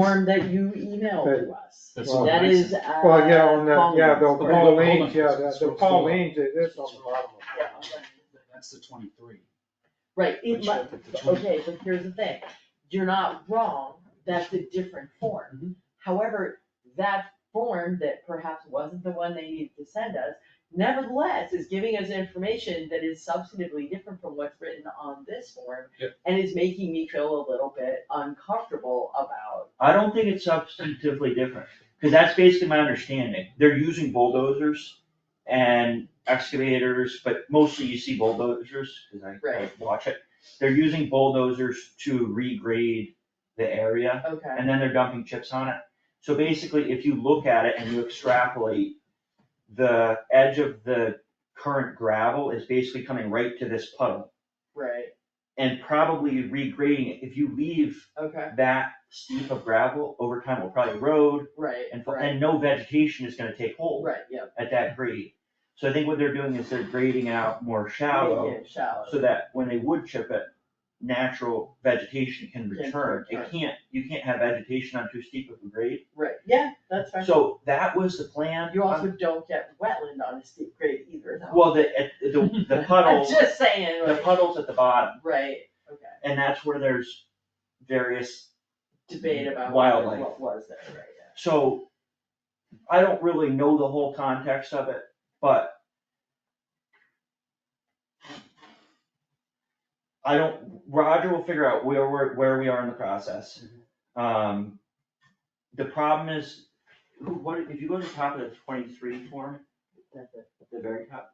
form that you emailed to us. That's Well, That is, uh. Well, yeah, on the, yeah, the Collins. Okay, hold on, Pauline's, yeah, let's- the- the let's- Pauline's, it is on the bottom of Yeah, it. That's the twenty-three. Right, it Which uh, might, one? Which one? okay, but here's the thing, you're not wrong, that's a different form. Mhm. However, that form that perhaps wasn't the one they needed to send us, nevertheless is giving us information that is substantively different from what's written on this form. Yep. And is making me feel a little bit uncomfortable about, I don't think it's substantively different, because that's basically my understanding. They're using bulldozers and excavators, but mostly you see bulldozers, because I, I Right. watch it. They're using bulldozers to regrade the area, okay, and then they're dumping chips on it. So basically, if you look at it and you extrapolate, the edge of the current gravel is basically coming right to this puddle, right, and probably regrading it. If you leave okay, that steep of gravel, over time will probably erode right, and, fo- right, and no vegetation is gonna take hold right, yeah. at that grade. So I think what they're doing is they're grading out more Make shallow, it shallow. so that when they wood chip it, natural vegetation can return. return. It can't, you can't have vegetation on too steep of a grade. Right, yeah, that's fine. So that was the plan. Um, You also don't get wetland on a steep grade either, though. Well, the, at- the, the I'm puddles, just saying, the like, puddles at the bottom, right, okay, and that's where there's various debate about what, Wildlife. what was there, right, yeah. So I don't really know the whole context of it, but I don't, Roger will figure out where we're, where we are in the process. Um, the problem is, who, what, if you go to the top of the twenty-three form, That's it, at the very top,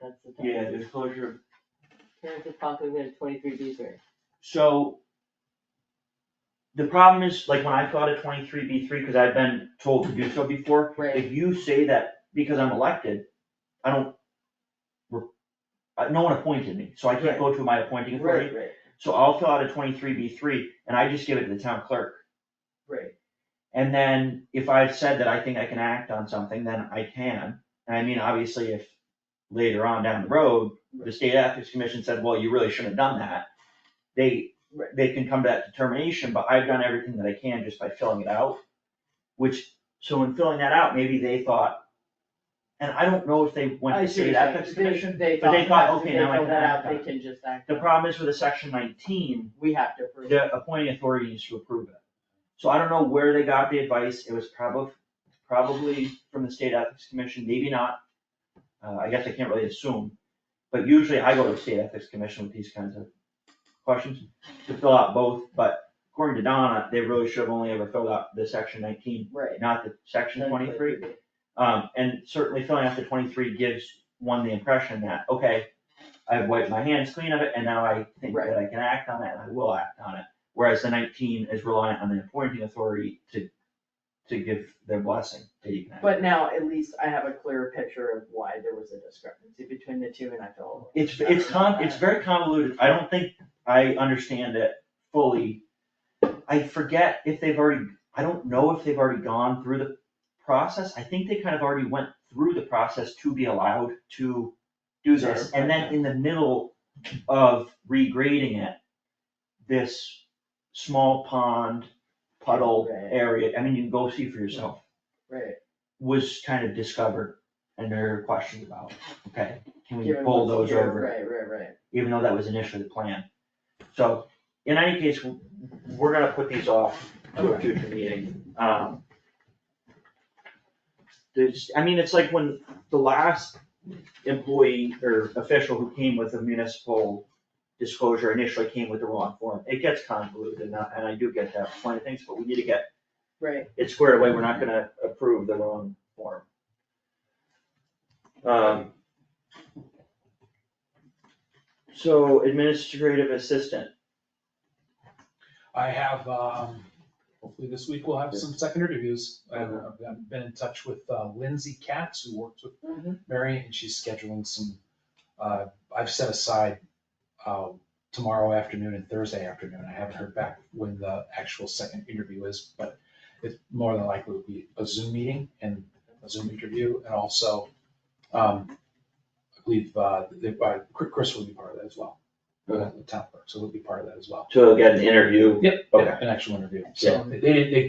that's the thing. yeah, disclosure of Parents of conflict at twenty-three B three. So the problem is, like, when I fill out a twenty-three B three, because I've been told to do so before, Right. if you say that because I'm elected, I don't, re- uh, no one appointed me, so I can't go to my appointing Right, authority. right, So I'll fill out a twenty-three B three and I just give it to the town clerk. right, And then if I've said that I think I can act on something, then I can. And I mean, obviously, if later on down the road, the state ethics commission said, well, you really shouldn't have done that. They, Right. they can come to that determination, but I've done everything that I can just by filling it out. Which, so in filling that out, maybe they thought, and I don't know if they went I to see what state you're ethics saying. They- commission. They but thought, they thought, perhaps if okay, they now I fill can that out, act on they it. can just act. The on it. problem is with a section nineteen, We have to approve. the appointing authority needs to approve it. So I don't know where they got the advice, it was probably, probably from the state ethics commission, maybe not. Uh, I guess I can't really assume, but usually I go to the state ethics commission with these kinds of questions to fill out both, but according to Donna, they really should have only ever filled out the section nineteen, Right. not the section twenty-three. Um, and certainly filling out the twenty-three gives one the impression that, okay, I've wiped my hands clean of it and now I think that I can act on it and I will act on it. Whereas the nineteen is reliant on the appointing authority to, to give their blessing that you can act. But now at least I have a clearer picture of why there was a discrepancy between the two and I feel a little. It's, it's con, it's very convoluted. I don't think I understand it fully. I forget if they've already, I don't know if they've already gone through the process. I think they kind of already went through the process to be allowed to do this. And then in the middle of regrading it, this small pond puddle Right. area, I mean, you can go see for yourself, Right, was kind of discovered. And there are questions about, okay, can we given what's bulldoze here, over it? right, right, right. even though that was initially the plan. So, in any case, w- we're gonna put these off to a future meeting. Um, There's, I mean, it's like when the last employee or official who came with a municipal disclosure initially came with the wrong form. It gets convoluted and I, and I do get that, plenty of things, but we need to get Right, it squared away. We're not gonna approve the wrong form. Um, So administrative assistant, I have, um, hopefully this week we'll have some second interviews. I've, I've been in touch with uh, Lindsay Katz, who works with Mhm. Mary, and she's scheduling some, uh, I've set aside, uh, tomorrow afternoon and Thursday afternoon. I haven't heard back when the actual second interview is, but it more than likely will be a Zoom meeting and a Zoom interview, and also, um, I believe, uh, they- uh, Chris will be part of that as well. go down to the town clerk, so it'll be part of that as well. to get an interview Yep. Okay. An actual interview, so they, they